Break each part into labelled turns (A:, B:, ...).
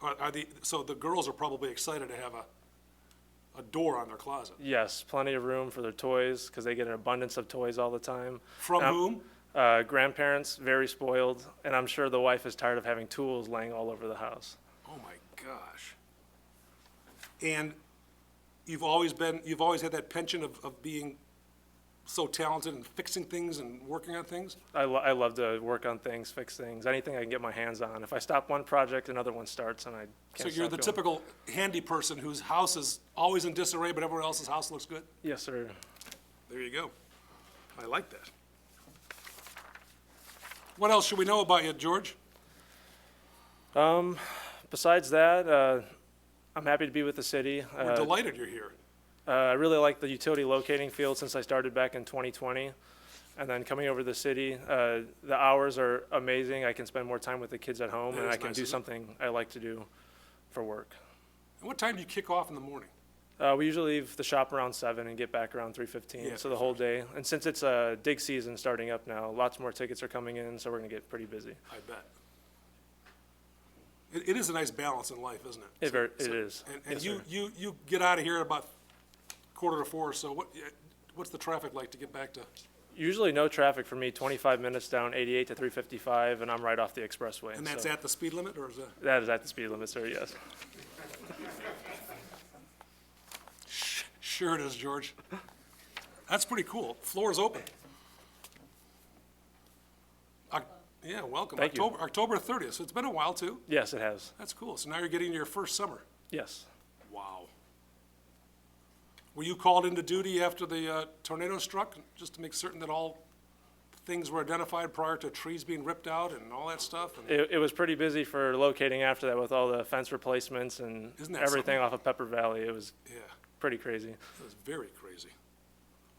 A: Are, are the, so the girls are probably excited to have a, a door on their closet.
B: Yes, plenty of room for their toys because they get an abundance of toys all the time.
A: From
B: And I'm-
A: whom?
B: Uh, grandparents, very spoiled, and I'm sure the wife is tired of having tools laying all over the house.
A: Oh my gosh. And you've always been, you've always had that penchant of, of being so talented and fixing things and working on things?
B: I, lo- I love to work on things, fix things, anything I can get my hands on. If I stop one project, another one starts, and I
A: So
B: can't
A: you're
B: stop
A: the
B: going.
A: typical handy person whose house is always in disarray, but everyone else's house looks good?
B: Yes, sir.
A: There you go. I like that. What else should we know about you, George?
B: Besides that, uh, I'm happy to be with the city.
A: We're
B: Uh,
A: delighted you're here.
B: Uh, I really like the utility locating field since I started back in 2020. And then coming over to the city, uh, the hours are amazing. I can spend more time with the kids at home
A: That
B: and
A: is
B: I can
A: nice,
B: do
A: isn't it?
B: something I like to do for work.
A: And what time do you kick off in the morning?
B: Uh, we usually leave the shop around seven and get back around three
A: Yeah,
B: fifteen, so the whole day. And since it's uh, dig season starting up now, lots more tickets are coming in, so we're gonna get pretty busy.
A: I bet. It, it is a nice balance in life, isn't it?
B: It ver- it is.
A: And, and
B: Yes,
A: you,
B: sir.
A: you, you get out of here at about quarter to four, so what, what's the traffic like to get back to?
B: Usually no traffic for me, twenty-five minutes down eighty-eight to three fifty-five, and I'm right off the expressway.
A: And that's
B: so-
A: at the speed limit, or is that?
B: That is at the speed limit, sir, yes.
A: Sure it is, George. That's pretty cool. Floor is open. Oc- Yeah, welcome.
B: Thank you.
A: October, October 30th, so it's been a while, too.
B: Yes, it has,
A: That's cool. So now you're getting your first summer.
B: yes.
A: Wow. Were you called into duty after the uh, tornado struck, just to make certain that all things were identified prior to trees being ripped out and all that stuff? And
B: It, it was pretty busy for locating after that with all the fence replacements and
A: Isn't that
B: everything off of Pepper Valley. It was
A: Yeah,
B: pretty crazy.
A: it was very crazy.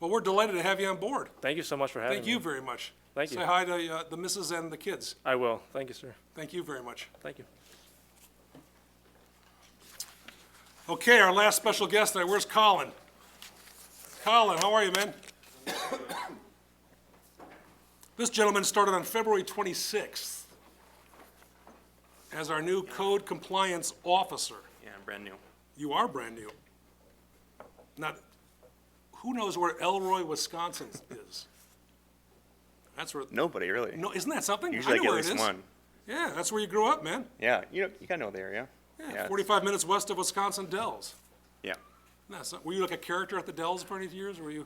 A: Well, we're delighted to have you on board.
B: Thank you so much for having
A: Thank
B: me.
A: you very much.
B: Thank
A: Say
B: you.
A: hi to uh, the missus and the kids.
B: I will. Thank you, sir.
A: Thank you very much.
B: Thank you.
A: Okay, our last special guest tonight, where's Colin? Colin, how are you, man? This gentleman started on February 26th as our new code compliance officer.
C: Yeah, I'm brand new.
A: You are brand new. Not, who knows where Elroy, Wisconsin is? That's where,
C: Nobody really.
A: no, isn't that something? I
C: Usually
A: know
C: I get at
A: where it
C: least
A: is.
C: one.
A: Yeah, that's where you grew up, man.
C: Yeah, you know, you gotta know the area.
A: Yeah,
C: it's-
A: 45 minutes west of Wisconsin Dells.
C: Yeah.
A: No, so- were you like a character at the Dells for any years, or were you?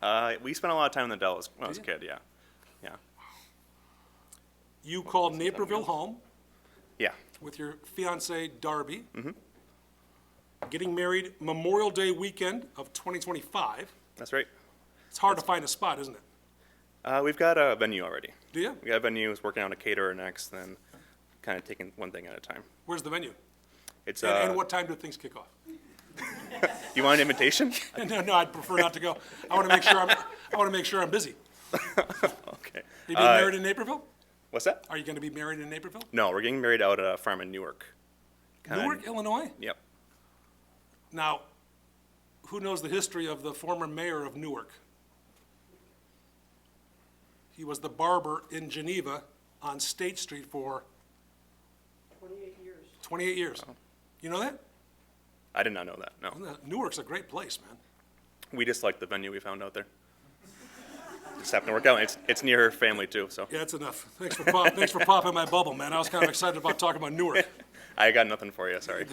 C: Uh, we spent a lot of time in the Dells when I was a
A: Did ya?
C: kid. Yeah. Yeah.
A: You called Naperville home
C: Yeah.
A: with your fiance Darby.
C: Mm-hmm.
A: Getting married Memorial Day weekend of 2025.
C: That's right.
A: It's hard to find a spot, isn't it?
C: Uh, we've got a venue already.
A: Do you?
C: We got a venue. Is working on a caterer next, then kind of taking one thing at a time.
A: Where's the venue?
C: It's uh,
A: And, and what time do things kick off?
C: you want an invitation?
A: No, no, I'd prefer not to go. I want to make sure I'm, I want to make sure I'm busy.
C: okay.
A: Are you being
C: Uh,
A: married in Naperville?
C: what's that?
A: Are you going to be married in Naperville?
C: No, we're getting married out at a farm in Newark. Kinda-
A: Newark, Illinois?
C: Yep.
A: Now, who knows the history of the former mayor of Newark? He was the barber in Geneva on State Street for? 28 years. 28 years. You know that?
C: I did not know that. No.
A: Newark's a great place, man.
C: We just like the venue we found out there. Just happened to work out. It's it's near her family too, so
A: Yeah, that's enough. Thanks for pop, thanks for popping my bubble, man. I was kind of excited about talking about Newark.
C: I got nothing for you. Sorry.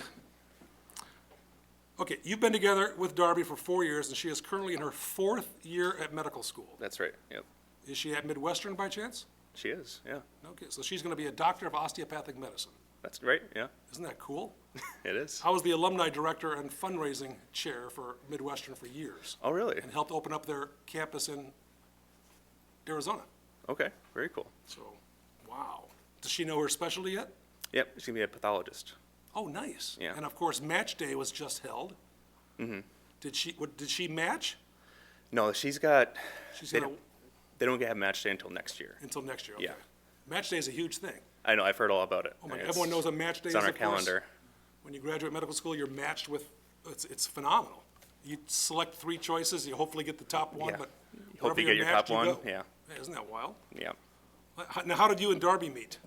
A: Okay, you've been together with Darby for four years, and she is currently in her fourth year at medical school.
C: That's right. Yep.
A: Is she at Midwestern by chance?
C: She is. Yeah.
A: Okay, so she's going to be a doctor of osteopathic medicine.
C: That's right. Yeah.
A: Isn't that cool?
C: It is.
A: I was the alumni director and fundraising chair for Midwestern for years
C: Oh, really?
A: and helped open up their campus in Arizona.
C: Okay. Very cool.
A: So, wow. Does she know her specialty yet?
C: Yep. She's gonna be a pathologist.
A: Oh, nice.
C: Yeah.
A: And of course, match day was just held. Mm-hmm. Did she, what, did she match?
C: No, she's got.
A: She's
C: they
A: gonna-
C: don't- They don't get have match day until next year.
A: Until next year, okay.
C: Yeah.
A: Match day is a huge thing.
C: I know. I've heard all about it.
A: Oh my,
C: It's-
A: everyone knows what match day is,
C: It's on our
A: of course.
C: calendar.
A: When you graduate medical school, you're matched with, it's, it's phenomenal. You select three choices, you hopefully get the top one,
C: Yeah.
A: but
C: You hope
A: wherever
C: you get
A: you're
C: your
A: matched,
C: top
A: you
C: one,
A: go.
C: yeah.
A: Isn't that wild?
C: Yeah.
A: Now, how did you and Darby meet?